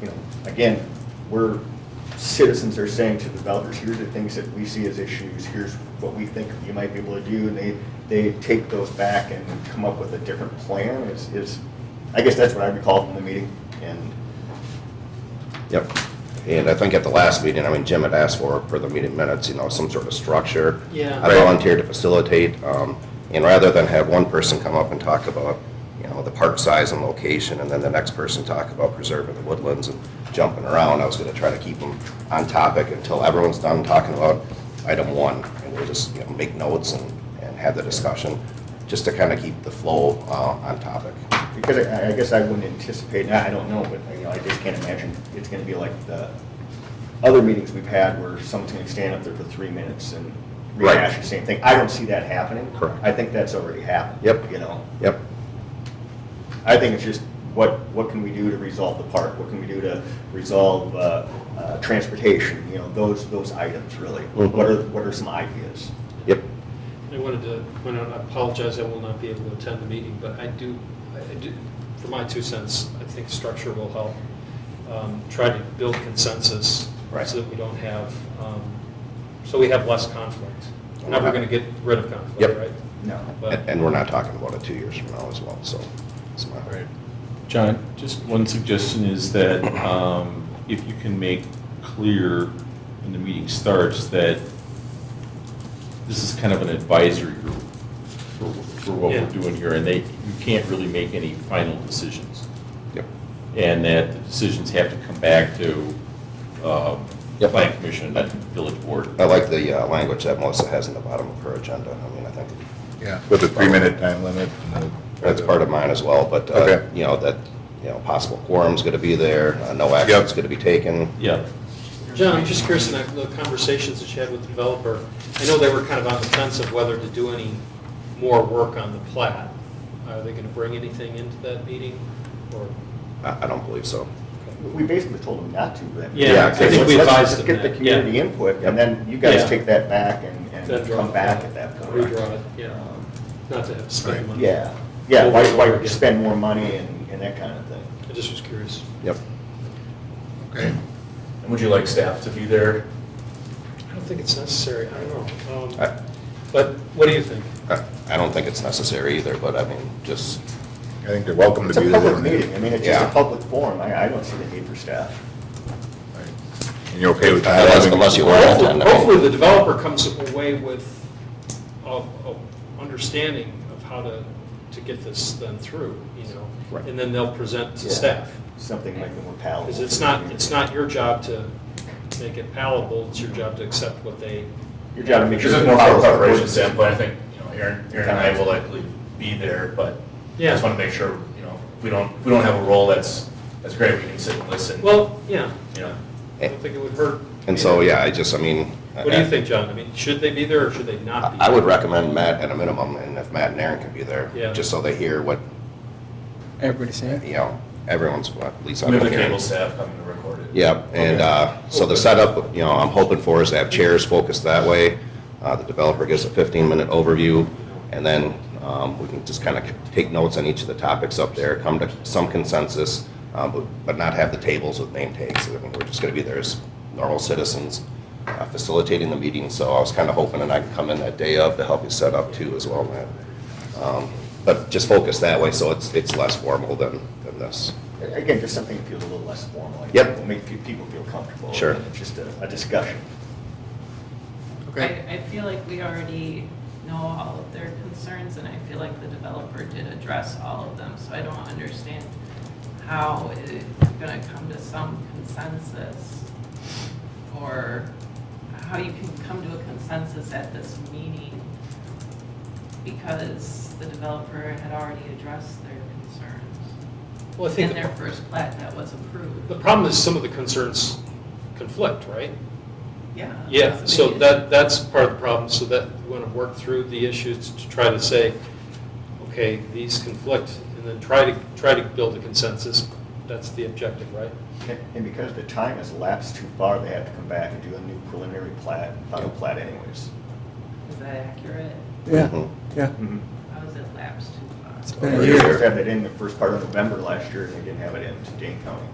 you know, again, we're, citizens are saying to developers, here's the things that we see as issues, here's what we think you might be able to do, and they, they take those back and come up with a different plan is, is, I guess that's what I recall from the meeting, and Yep. And I think at the last meeting, I mean, Jim had asked for, for the meeting minutes, you know, some sort of structure. Yeah. I volunteered to facilitate, um, and rather than have one person come up and talk about, you know, the park size and location, and then the next person talk about preserving the woodlands and jumping around, I was gonna try to keep them on topic until everyone's done talking about item one, and we'll just, you know, make notes and, and have the discussion, just to kind of keep the flow, uh, on topic. Because I, I guess I wouldn't anticipate, and I don't know, but, you know, I just can't imagine it's gonna be like the other meetings we've had where someone's gonna stand up there for three minutes and Right. rehash the same thing. I don't see that happening. Correct. I think that's already happened. Yep. You know, Yep. I think it's just, what, what can we do to resolve the park? What can we do to resolve, uh, uh, transportation, you know, those, those items really? Mhm. Mm-hmm. What are, what are some ideas? Yep. I wanted to point out, I apologize, I will not be able to attend the meeting, but I do, I do, for my two cents, I think structure will help. Um, Try to build consensus. Right. So that we don't have, um, so we have less conflict. Now we're going to get rid of conflict, Yep. right? No. But- And, and we're not talking about it two years from now as well, so, it's my. John, just one suggestion is that um, if you can make clear when the meeting starts that this is kind of an advisory group for, for what Yeah. we're doing here, and they, you can't really make any final decisions. Yep. And that the decisions have to come back to um, Yep. planning commission, not village board. I like the uh, language that Melissa has in the bottom of her agenda. I mean, I think Yeah, with a three-minute time limit. and the- that's part of mine as well, but, uh, Okay. you know, that, you know, possible quorum's going to be there, uh, no action's going to be taken. Yeah. John, I'm just curious, in that- the conversations that you had with the developer, I know they were kind of on the fence of whether to do any more work on the plat. Are they going to bring anything into that meeting, or? I I don't believe so. We basically told them not to, but. Yeah, Yeah, I think Let's- we let's advised just them Get the that, yeah. community input, Yep. and then you guys Yeah. take that back and, Then and draw come it back back. at that point. Redraw it, yeah. Um, Not to have to spend money. Yeah, yeah, Over why, and over why again. spend more money and, and that kind of thing? I just was curious. Yep. Okay, And would you like staff to be there? I don't think it's necessary, I don't know. I- Um, But what do you think? I I don't think it's necessary either, but I mean, just, I think they're welcome to It's a be there. public when they- meeting, I mean, it's just a Yeah. public forum, I, I don't see the need for staff. Right. And you're okay with not Unless- having? unless you want- Well, Hopefully, no. hopefully the developer comes away with a, a understanding of how to, to get this then through, you know? Right. And then they'll present to Yeah. staff. Something like the more palatable. Because it's not, it's not your job to make it palatable, it's your job to accept what they. Your job to make This sure. is more from a preparation standpoint, I think, you know, Aaron, Aaron and I will likely be there, but I Yeah. just want to make sure, you know, if we don't, if we don't have a role that's, that's great, we can sit and listen. Well, yeah, You know, I don't think it would hurt. and so, either. yeah, I just, I mean. uh, What do you think, John? I mean, should they be there or should they not I be? I would there? recommend Matt at a minimum, and if Matt and Aaron can be there. Yeah. Just so they hear what, Everybody saying? you know, everyone's, what at least I'm we have hearing. the cable staff coming to record it. Yep, and uh, so the setup, you know, I'm hoping for is to have chairs focused that way. Uh, The developer gives a 15-minute overview, and then um, we can just kind of take notes on each of the topics up there, come to some consensus, uh, but but not have the tables with name tags. I mean, We're just going to be there as normal citizens uh, facilitating the meeting, so I was kind of hoping that I could come in that day of to help you set up too as well, Matt. Um, But just focus that way, so it's it's less formal than than this. Again, just something that feels a little less formal. like, Yep. will Make fe- people feel comfortable. Sure. and It's just a, a discussion. Okay, I, I feel like we already know all of their concerns, and I feel like the developer did address all of them, so I don't understand how it's gonna come to some consensus, or how you can come to a consensus at this meeting, because the developer had already addressed their concerns Well, I think. in their first plat that was approved. The problem is some of the concerns conflict, right? Uh, Yeah. Yeah, that's the so big that, that's part of the problem, so that we want to work through the issues to try to say, okay, these conflict, and then try to, try to build a consensus. That's the objective, right? And- And because the time has lapsed too far, they have to come back and do a new preliminary plat, final plat anyways. issue. Is that accurate? Yeah, Mhm. yeah. Mm-hmm. How is it lapsed too far? It's been a They year. just had that in the first part of November last year, and they didn't have it in to Dane County.